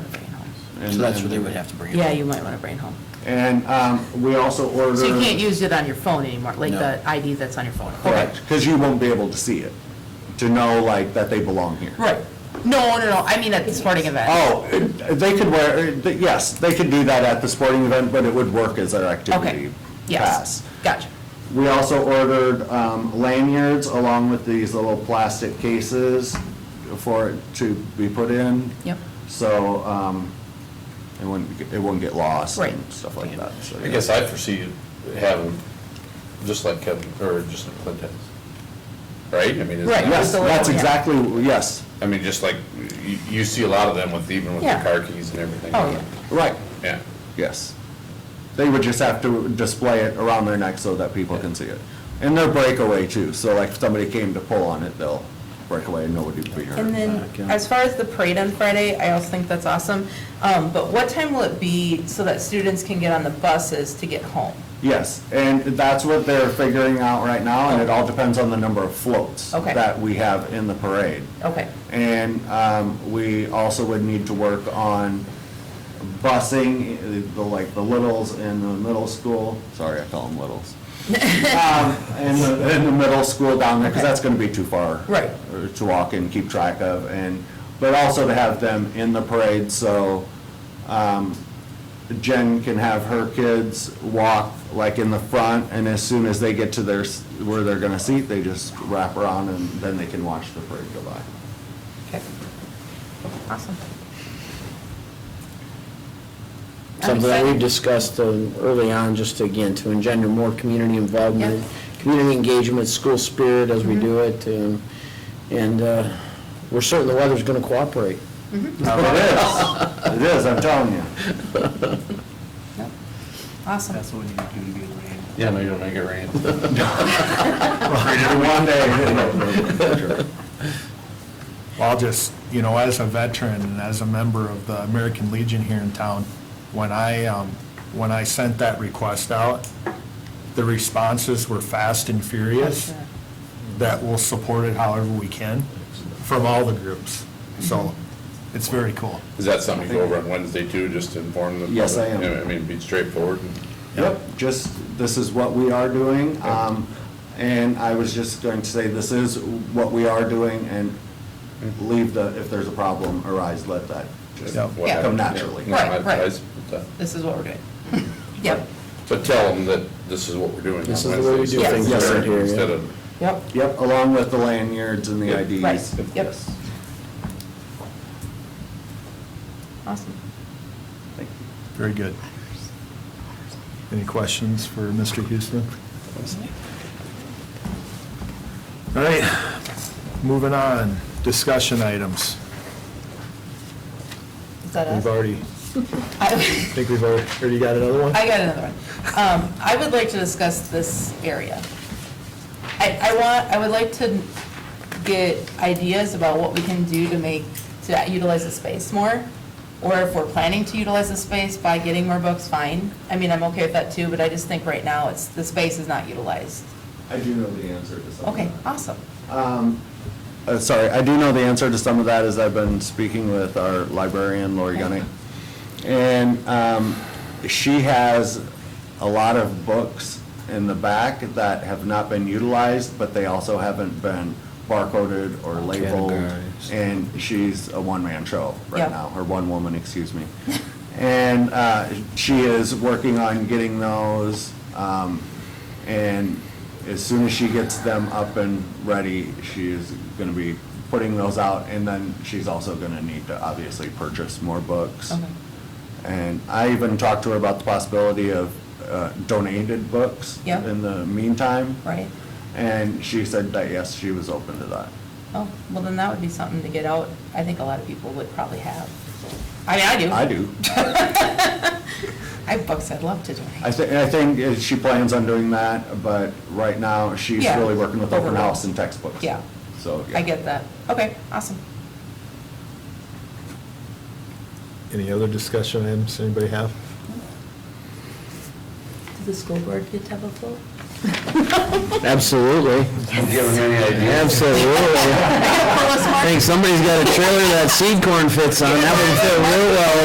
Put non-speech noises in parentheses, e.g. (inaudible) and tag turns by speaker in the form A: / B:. A: and-
B: So that's where they would have to bring it.
C: Yeah,
B: in.
C: you might want to bring it home.
A: And um, we also order.
C: So you can't use it on your phone anymore, like
B: No.
C: the ID that's on your phone.
A: Correct, because you won't be able to see it, to know like that they belong here.
C: Right. No, no, no, I mean at the sporting event.
A: Oh, uh, they could wear, uh, th- yes, they could do that at the sporting event, but it would work as their
B: Oh.
C: Okay,
A: activity
C: yes,
A: pass.
C: gotcha.
A: We also ordered um, lanyards along with these little plastic cases for it to be put in.
C: Yep.
A: So um, it wouldn't, get- it wouldn't get lost
C: Right.
A: and stuff like that. so,
D: I
A: yeah.
D: guess I foresee having, just like Kevin, or just like Clint has, right? I mean, it's
C: Right.
D: not-
A: Yes,
C: Just a
A: that's
C: little, yeah.
A: exactly, yes,
D: I mean, just like, you, you see a lot of them with, even with the
C: Yeah.
D: car keys and everything.
C: Oh, yeah.
A: right,
D: Yeah.
A: yes. They would just have to display it around their neck so that people can see it. And they're breakaway too, so like if somebody came to pull on it, they'll break away and nobody would be hurt.
C: And
B: back,
C: then,
B: yeah.
C: as far as the parade on Friday, I also think that's awesome. Um, But what time will it be so that students can get on the buses to get home?
A: Yes, and that's what they're figuring out right now, and it all depends on the number of floats
C: Okay.
A: that we have in the parade.
C: Okay,
A: And um, we also would need to work on busing, uh, the like the littles in the middle school, sorry, I call
C: (laughs)
A: them littles. Um, In the, in the middle school down there, because
C: Okay.
A: that's going to be too far.
C: Right.
A: uh, To walk and keep track of, and, but also to have them in the parade, so um, Jen can have her kids walk like in the front, and as soon as they get to their, s- where they're going to seat, they just wrap around, and then they can watch the parade go by.
C: okay. Awesome.
B: Something that
C: excited.
B: we've discussed um, early on, just again, to engender more community involvement, community engagement, school spirit as we do it, um, and uh, we're certain the weather's going to cooperate.
A: It is, it is, I'm telling you.
C: Yep. Awesome.
E: That's what we need to do to be a rain.
D: Yeah, maybe it'll make it rain.
A: (laughs) One day.
E: Well, I'll just, you know, as a veteran and as a member of the American Legion here in town, when I, um, when I sent that request out, the responses were fast and furious that we'll support it however we can from all the groups. So it's very cool.
D: Is that something you go over on Wednesday too, just to inform them?
A: Yes, I am.
D: I mean, be straightforward. and-
A: Yep, just, this is what we are doing. um, And I was just going to say, this is what we are doing and leave the, if there's a problem arise, let that just
E: Yep.
D: what
C: Yeah.
A: come
D: happened.
A: naturally.
D: No,
C: Right,
D: I- I-
C: right.
D: but, uh,
C: This is what
D: (laughs)
C: we're doing. Yep,
D: But tell them that this is what we're doing on
B: This
D: Wednesday.
B: is the way we do
C: things
A: Yes.
B: around here, yeah.
D: Instead of,
C: yep,
A: Yep, along with the lanyards and the
D: Yep.
A: IDs.
C: right, yep.
A: Yes.
C: Awesome.
E: Very good. Any questions for Mr. Houston? All right, moving on, discussion items.
C: Is that us?
E: We've already, I
C: I (laughs)
E: think we've already, or you got another one?
C: I got another one. Um, I would like to discuss this area. I, I want, I would like to get ideas about what we can do to make, to utilize the space more, or if we're planning to utilize the space by getting more books, fine. I mean, I'm okay with that too, but I just think right now, it's, the space is not utilized.
A: I do know the answer to some of
C: Okay,
A: that.
C: awesome.
A: Uh, Sorry, I do know the answer to some of that, as I've been speaking with our librarian, Lori Gunning. And um, she has a lot of books in the back that have not been utilized, but they also haven't been barcoded or labeled.
B: Categorized.
A: And she's a one-man show
C: Yeah.
A: right now, or one woman, excuse me. And uh, she is working on getting those, um, and as soon as she gets them up and ready, she is gonna be putting those out, and then she's also gonna need to obviously purchase more books.
C: Okay.
A: And I even talked to her about the possibility of uh, donated books
C: Yeah.
A: in the meantime.
C: Right?
A: And she said that, yes, she was open to that.
C: Oh, well, then that would be something to get out. I think a lot of people would probably have. I mean, I do.
A: I do.
C: I have books I'd love to donate.
A: I think, I think uh, she plans on doing that, but right now, she's
C: Yeah.
A: really working with open
C: Overall.
A: house and textbooks.
C: Yeah.
A: So. yeah.
C: I get that. Okay, awesome.
E: Any other discussion items anybody have?
C: Did the school board get to have a vote?
B: Absolutely,
D: do you have any idea?
C: (laughs)
B: absolutely. I think somebody's got a trailer that seed corn fits on, that would fit real well